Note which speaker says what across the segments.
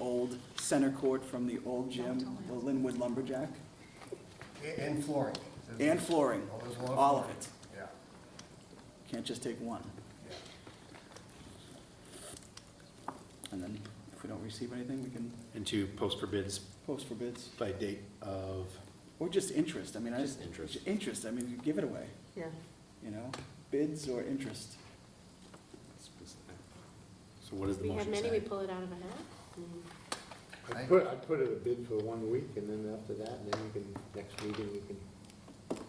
Speaker 1: old center court from the old gym, the Linwood Lumberjack,
Speaker 2: A- And flooring.
Speaker 1: and flooring,
Speaker 2: All those long
Speaker 1: all of
Speaker 2: flooring.
Speaker 1: it.
Speaker 2: Yeah,
Speaker 1: Can't just take one.
Speaker 2: yeah.
Speaker 1: And then if we don't receive anything, we can
Speaker 3: And to post for bids
Speaker 1: post for bids,
Speaker 3: by date of,
Speaker 1: or just interest, I mean, I.
Speaker 3: Just interest.
Speaker 1: Interest, I mean, you give it away,
Speaker 4: Yeah.
Speaker 1: you know, bids or interest.
Speaker 3: so what does the
Speaker 4: We have
Speaker 3: motion
Speaker 4: many, we
Speaker 3: say?
Speaker 4: pull it out of a hat.
Speaker 5: I put, I put it a bid for one week, and then after that, and then you can, next meeting, you can.
Speaker 1: Well,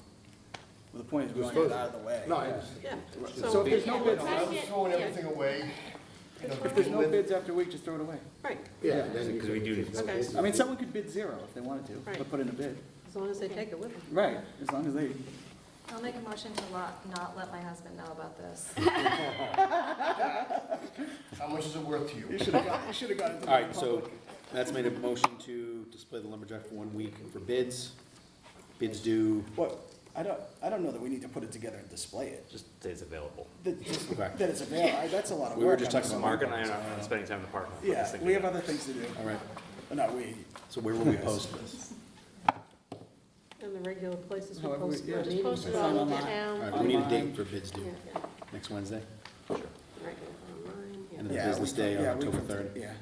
Speaker 1: the point is, we want to get it out of the way.
Speaker 5: No, I just,
Speaker 4: Yeah.
Speaker 1: So if there's no
Speaker 4: Yeah,
Speaker 1: bids,
Speaker 4: we'll
Speaker 2: I
Speaker 4: try to
Speaker 2: was
Speaker 4: get-
Speaker 2: throwing
Speaker 4: yeah.
Speaker 2: everything away. you know,
Speaker 1: If there's no
Speaker 2: with-
Speaker 1: bids after a week, just throw it away.
Speaker 4: Right,
Speaker 5: yeah. then you
Speaker 3: Because we
Speaker 5: can-
Speaker 3: do-
Speaker 5: there's no
Speaker 4: Okay.
Speaker 5: bid.
Speaker 1: I mean, someone could bid zero if they wanted to, but
Speaker 4: Right.
Speaker 1: put in a bid.
Speaker 4: as long as they take it with them.
Speaker 1: Right, as long as they,
Speaker 6: I'll make a motion to lot, not let my husband know about this.
Speaker 2: How much is it worth to
Speaker 1: you
Speaker 2: you?
Speaker 1: should have got, you should have got it to
Speaker 3: All right,
Speaker 1: the
Speaker 3: so
Speaker 1: public.
Speaker 3: Matt's made a motion to display the lumberjack for one week for bids. Bids due,
Speaker 1: Well, I don't, I don't know that we need to put it together and display it,
Speaker 7: Just stays available.
Speaker 1: that, just-
Speaker 3: Okay.
Speaker 1: that it's available, I- that's a lot of work.
Speaker 3: We were just
Speaker 1: I'm
Speaker 3: talking about
Speaker 1: assuming.
Speaker 7: Mark and I are not spending time in the park. We're just
Speaker 1: Yeah,
Speaker 7: thinking
Speaker 1: we have
Speaker 7: about-
Speaker 1: other things to do,
Speaker 3: all right,
Speaker 1: Well, not we,
Speaker 3: so where will we post this?
Speaker 4: And the regular places we
Speaker 1: However,
Speaker 4: post
Speaker 1: yeah,
Speaker 4: for
Speaker 1: just
Speaker 4: meetings.
Speaker 1: post it
Speaker 4: all over
Speaker 1: online.
Speaker 3: All
Speaker 4: town.
Speaker 3: right, we need a
Speaker 1: Online.
Speaker 3: date for bids due,
Speaker 4: Yeah,
Speaker 3: next Wednesday,
Speaker 4: right, online, yeah.
Speaker 3: end of the
Speaker 1: yeah. we
Speaker 3: business
Speaker 1: can-
Speaker 3: day on
Speaker 1: yeah, we
Speaker 3: October
Speaker 1: can-
Speaker 3: third.
Speaker 1: Yeah,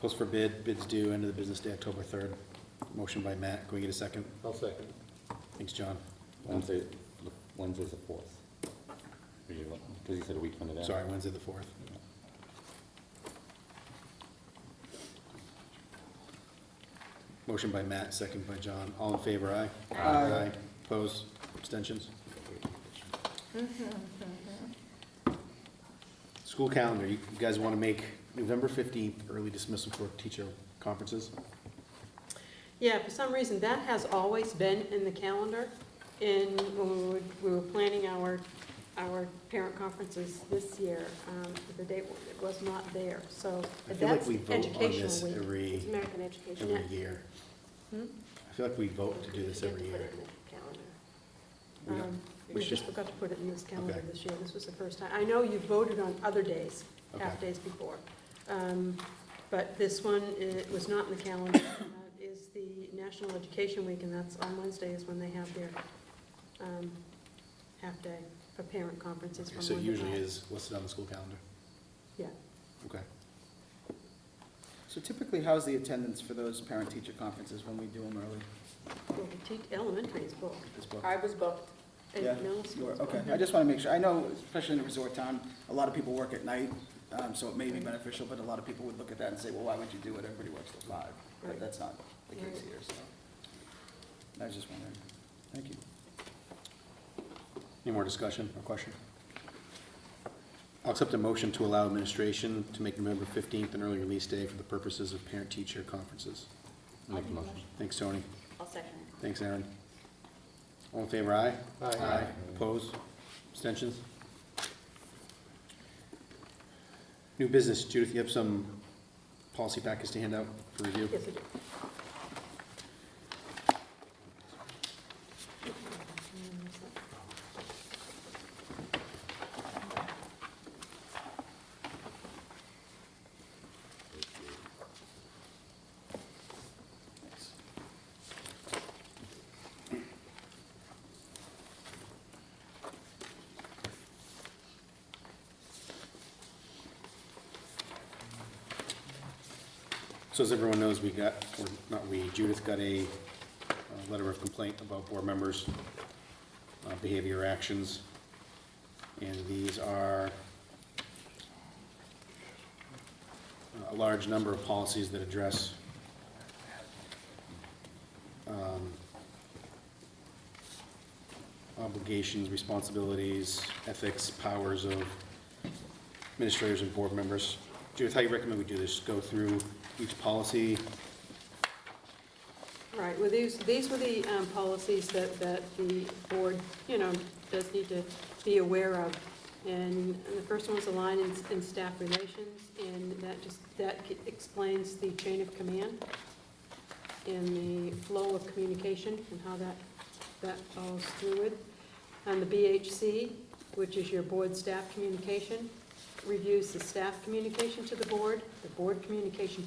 Speaker 3: Post for bid, bids due, end of the business day, October third. Motion by Matt, can we get a second?
Speaker 5: I'll second.
Speaker 3: Thanks, John.
Speaker 8: Wednesday, the- Wednesday's the fourth. Because he said a week from today.
Speaker 3: Sorry, Wednesday the fourth. Motion by Matt, second by John. All in favor, aye?
Speaker 1: Aye.
Speaker 3: Opposed, abstentions? School calendar, you you guys want to make November fifteenth early dismissal for teacher conferences?
Speaker 4: Yeah, for some reason, that has always been in the calendar, and when we were, we were planning our, our parent conferences this year, um, the date, wa- it was not there, so
Speaker 3: I feel like
Speaker 4: that's
Speaker 3: we vote on this
Speaker 4: educational week.
Speaker 3: every,
Speaker 4: It's American Education.
Speaker 3: every
Speaker 4: Act.
Speaker 3: year.
Speaker 4: Hmm?
Speaker 3: I feel like we vote to do this every
Speaker 4: We
Speaker 3: year.
Speaker 4: forget to
Speaker 3: We
Speaker 4: put it in the calendar.
Speaker 3: don't-
Speaker 4: Um,
Speaker 3: we
Speaker 4: We
Speaker 3: should-
Speaker 4: just forgot to put it in this calendar
Speaker 3: Okay.
Speaker 4: this year, this was the first time. I know you voted on other days,
Speaker 3: Okay.
Speaker 4: half-days before, Um, but this one, it was not in the calendar, and that is the National Education Week, and that's on Wednesday is when they have their um, half-day for parent conferences from
Speaker 3: So it
Speaker 4: one to
Speaker 3: usually
Speaker 4: five.
Speaker 3: is listed on the school calendar.
Speaker 4: Yeah,
Speaker 3: Okay.
Speaker 1: so typically, how's the attendance for those parent-teacher conferences when we do them early
Speaker 4: well, the te- elementary is booked,
Speaker 1: this book?
Speaker 9: I was booked.
Speaker 4: and
Speaker 1: Yeah,
Speaker 4: middle
Speaker 1: you
Speaker 4: school
Speaker 1: are,
Speaker 4: is booked.
Speaker 1: okay, I just want to make sure, I know, especially in a resort town, a lot of people work at night, um, so it may be beneficial, but a lot of people would look at that and say, well, why would you do it, everybody works till five, but
Speaker 4: Right.
Speaker 1: that's not the case
Speaker 4: Right.
Speaker 1: here, so. I was just wondering, thank you.
Speaker 3: Any more discussion or question? I'll accept a motion to allow administration to make November 15th an early release day for the purposes of parent-teacher conferences.
Speaker 8: Make a motion.
Speaker 3: Thanks, Tony.
Speaker 9: I'll second it.
Speaker 3: Thanks, Aaron. All in favor, aye?
Speaker 5: Aye.
Speaker 3: Opposed? Abstentions? New business. Judith, you have some policy packets to hand out for review?
Speaker 4: Yes, I do.
Speaker 3: So as everyone knows, we got, or not we, Judith got a uh, letter of complaint about board members' uh, behavior or actions. And these are uh, a large number of policies that address um, obligations, responsibilities, ethics, powers of administrators and board members. Judith, how you recommend we do this? Go through each policy?
Speaker 4: Right, well, these, these were the um, policies that, that the board, you know, does need to be aware of. And the first one's align in, in staff relations, and that just, that explains the chain of command and the flow of communication and how that, that follows through with. And the BHC, which is your board staff communication, reviews the staff communication to the board, the board communication to